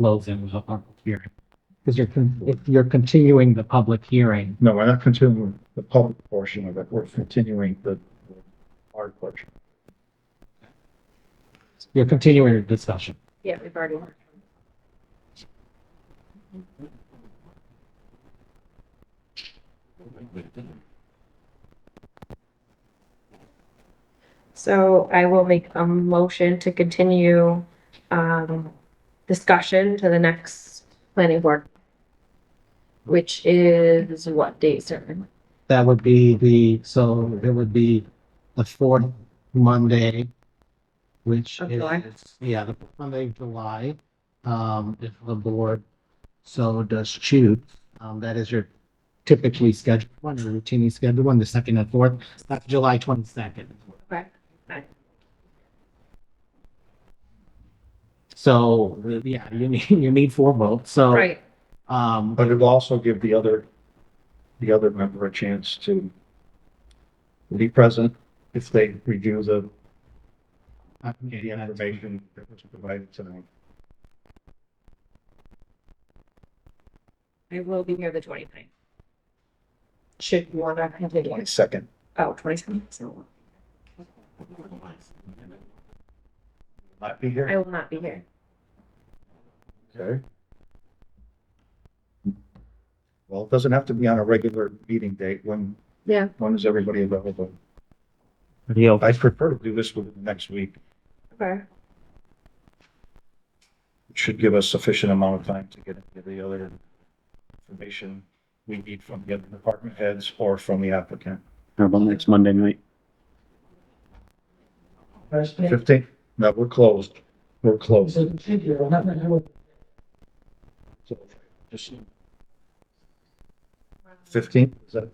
closing the public hearing. Because you're, con- if you're continuing the public hearing. No, we're not continuing the public portion of it. We're continuing the hard portion. You're continuing your discussion. Yeah, we've already. So I will make a motion to continue, um, discussion to the next planning board. Which is what date certain? That would be the, so it would be the fourth Monday, which Of July? is, yeah, the fourth Monday of July. Um, if the board so does choose, um, that is your typically scheduled one, your routinely scheduled one, the second and fourth. That's July twenty-second. Okay. So, yeah, you need, you need four votes, so. Right, Um, But it'll also give the other, the other member a chance to be present if they review the, the okay, that's- information that was provided to them. I will be here the twenty-ninth. Should you wanna have it? Twenty-second. Oh, twenty-seven, so Not be I here. will not be here. Okay. Well, it doesn't have to be on a regular meeting date. When, Yeah. when is everybody available? Leo. I prefer to do this within the next week. Okay. It should give us sufficient amount of time to get into the other information we need from the other department heads or from the applicant. How about next Monday night? Fifteen? No, we're closed. We're closed. Fifteen? Is that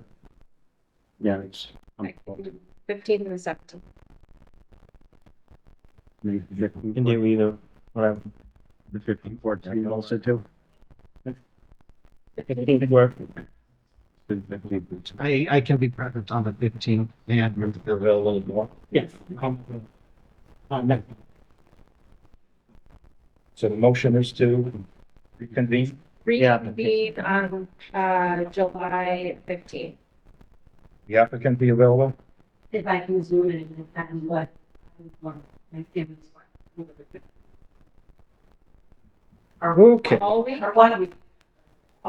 Yeah, it's. Okay. Fifteenth and seventeenth. Can do either, whatever. The fifteen fourteen also too. Fifteen work. I, I can be present on the fifteenth and, you're available more? Yes. So the motion is to reconvene? Yeah. Reconvene on, uh, July fifteenth. The applicant be available? if I can zoom in and if I'm what, I'm what, my family's what. Okay. All week? Or one week.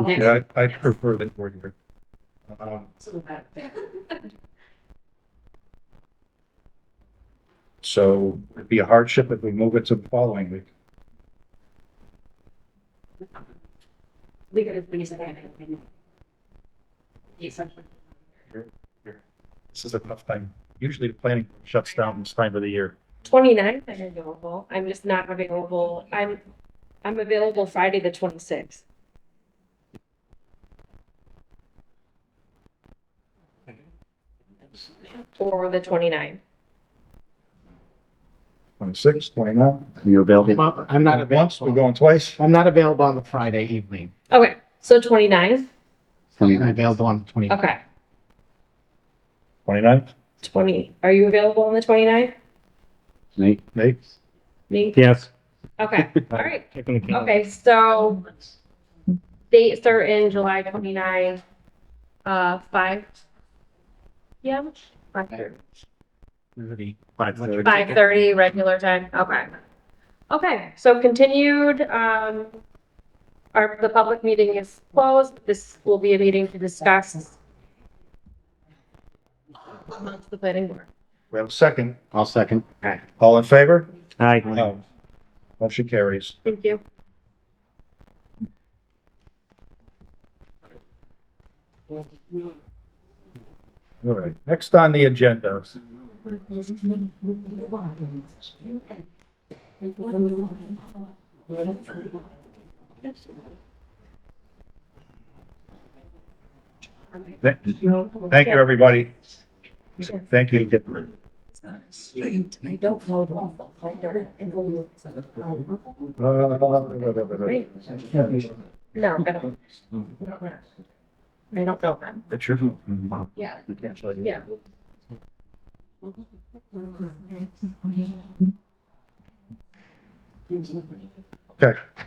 Next, Yeah, I I prefer that we're here. Um, so that, So it'd be a hardship if we move it to the following week. we could have finished that. I think. Yeah, something. This is a tough time. Usually the planning shuts down this time of the year. Twenty-ninth I'm available. I'm just not available. I'm, I'm available Friday, the twenty-sixth. Or the 29th. Twenty-six, twenty-nine. You available? well, I'm not Once, we're available. going twice. I'm not available on the Friday evening. Okay, so 29th. I'm available on the twenty. Okay, Twenty-nine, twenty, are you available on the 29th? Nate? Nate? Me? Yes. Okay, all right. Okay. Okay, so dates are in July twenty-nine, uh, five. Yeah, Five thirty. five thirty, regular time, okay. Okay, so continued, um, our, the public meeting is closed, this will be a meeting to discuss amongst the planning board. We have a second. I'll second. All in favor? Aye. No. Motion carries. Thank you. All right. Next on the agenda. Thank thank you, everybody. Thank you. I don't know. the folder and all of it. Uh, No, I don't. I don't know them. That's your. Yeah. Yeah. Yeah. Okay.